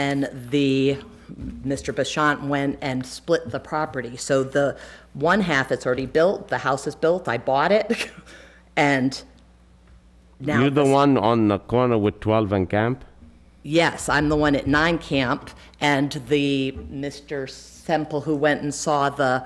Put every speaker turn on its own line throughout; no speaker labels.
then the, Mr. Bashant went and split the property. So the one half that's already built, the house is built, I bought it, and now.
You're the
this-
one on the corner with 12 and Camp?
Yes, I'm the one at Nine Camp, and the Mr. Semple who went and saw the,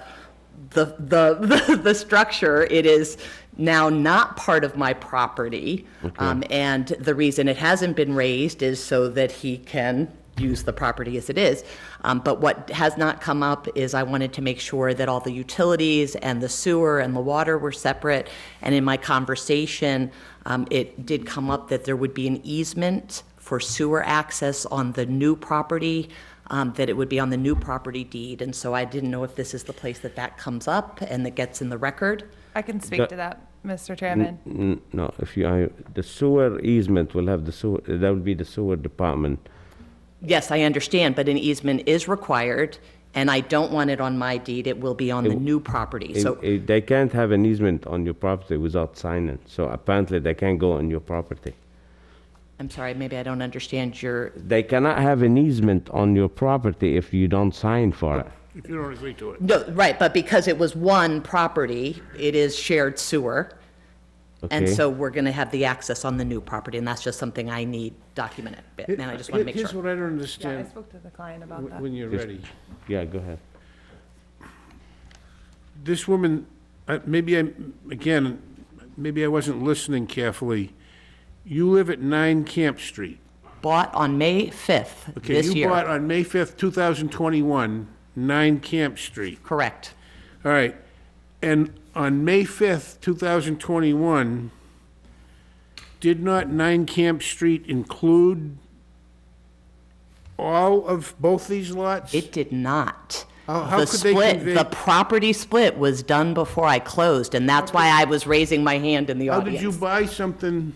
the, the, the, structure, it is now not part of my property. Um, and the reason it hasn't been raised is so that he can use the property as it is. Um, but what has not come up is I wanted to make sure that all the utilities and the sewer and the water were separate. And in my conversation, um, it did come up that there would be an easement for sewer access on the new property, um, that it would be on the new property deed. And so I didn't know if this is the place that that comes up and that gets in the record.
I can speak to that, Mr.
Mm-hmm.
Chairman.
N- No, if you, I- the sewer easement will have the sewer, that would be the sewer department.
Yes, I understand, but an easement is required, and I don't want it on my deed. It will be on the new property.
It-
So
it- They can't have an easement on your property without signing, so apparently they can't go on your property.
I'm sorry, maybe I don't understand your,
They cannot have an easement on your property if you don't sign for it.
If you don't agree to it.
no, right, but because it was one property, it is shared sewer. And
Okay.
so we're going to have the access on the new property, and that's just something I need documented. And I just want to make
Here's
sure.
what I don't
Yeah, I
understand,
spoke to the client about
wh-
that.
when you're ready.
Yeah, go ahead.
This woman, I- maybe I, again, maybe I wasn't listening carefully. You live at 9 Camp Street.
Bought on May 5th
Okay,
this year.
you bought on May 5th, 2021, 9 Camp Street.
Correct.
All right. And on May 5th, 2021, did not 9 Camp Street include all of both these lots?
It did not.
How- Oh, how
The
could they
split-
convey-
The property split was done before I closed, and that's why I was raising my hand in the
How did you
audience.
buy something?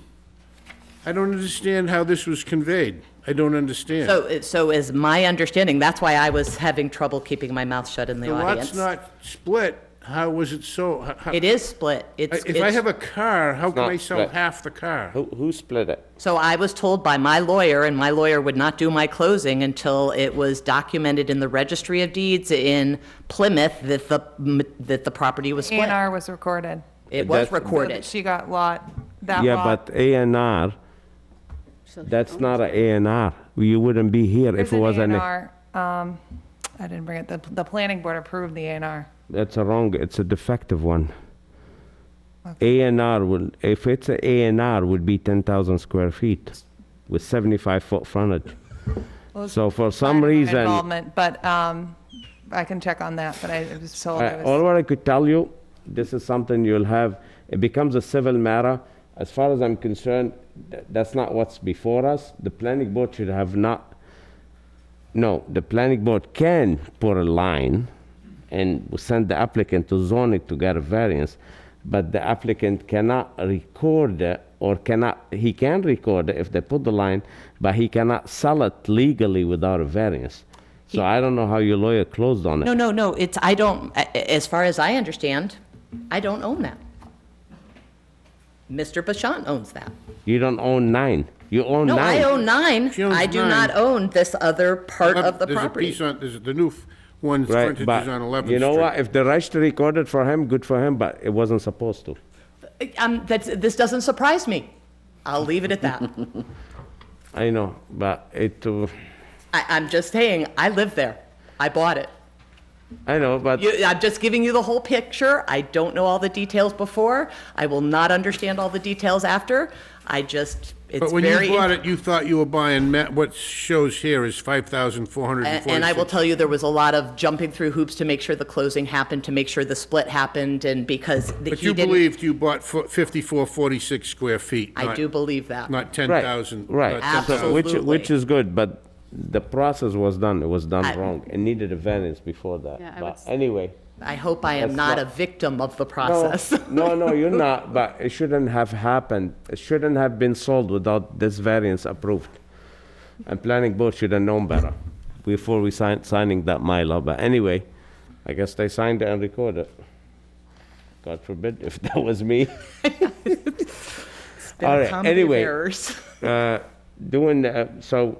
I don't understand how this was conveyed. I don't understand.
So, it- so is my understanding, that's why I was having trouble keeping my mouth shut in the
The
audience.
lot's not split, how was it so? how- how-
It is split. It's,
If I
it's-
have a car, how can
not
I sell
split.
half the car?
Who, who split it?
so I was told by my lawyer, and my lawyer would not do my closing until it was documented in the Registry of Deeds in Plymouth that the, that the property was
A and
split.
R was recorded.
It was
That's-
so that
recorded.
She got lot, that lot.
Yeah, but A and R, that's not a A and R. You wouldn't be here if
There's
it
an
was
A and
an,
R. Um, I didn't bring it, the, the planning board approved the A and R.
that's a wrong, it's a defective one. A and R will, if it's a A and R, would be 10,000 square feet with 75-foot frontage. So for some reason,
Involvement, but, um, I can check on that, but I I was told
I-
it
all
was,
what I could tell you, this is something you'll have, it becomes a civil matter. As far as I'm concerned, th- that's not what's before us. The planning board should have not, no, the planning board can put a line and send the applicant to zoning to get a variance, but the applicant cannot record it or cannot, he can record it if they put the line, but he cannot sell it legally without a variance. So I don't know how your lawyer closed on it.
No, no, no, it's, I don't, a- a- as far as I understand, I don't own that. Mr. Bashan owns that.
You don't own nine. You own
No,
nine.
I own nine.
She owns
I do not
nine.
own this other part of the
There's a
property.
piece on, there's the new f- one's
Right,
frontage is
but
on 11th Street.
you know what? If the register recorded for him, good for him. But it wasn't supposed to.
Um, that's, this doesn't surprise me. I'll leave it at that.
I know, but it. Uh,
I, I'm just saying, I live there. I bought it.
I know, but
You, I'm just giving you the whole picture. I don't know all the details before. I will not understand all the details after. I just, it's
But when you
very.
bought it, you thought you were buying, ma- what shows here is
And
5,446.
and I will tell you, there was a lot of jumping through hoops to make sure the closing happened, to make sure the split happened, and because the-
But
he
you
didn't.
believed you bought fo- 5446 square feet.
I
not-
do believe that.
Not
right,
10,000.
right.
not 10,000.
So which which
Absolutely.
is good, but the process was done. It was done
I-
wrong. It needed a variance before that.
Yeah, I would
but
s-
anyway.
I hope I am
That's
not
not-
a victim of the
No,
process.
no, no, you're not. But it shouldn't have happened. It shouldn't have been sold without this variance approved. And planning board should have known better before we signed signing that mylar. But anyway, I guess they signed it and recorded. God forbid if that was me.
Been a
All
comedy
right,
of
anyway.
errors.
Uh, doing that, so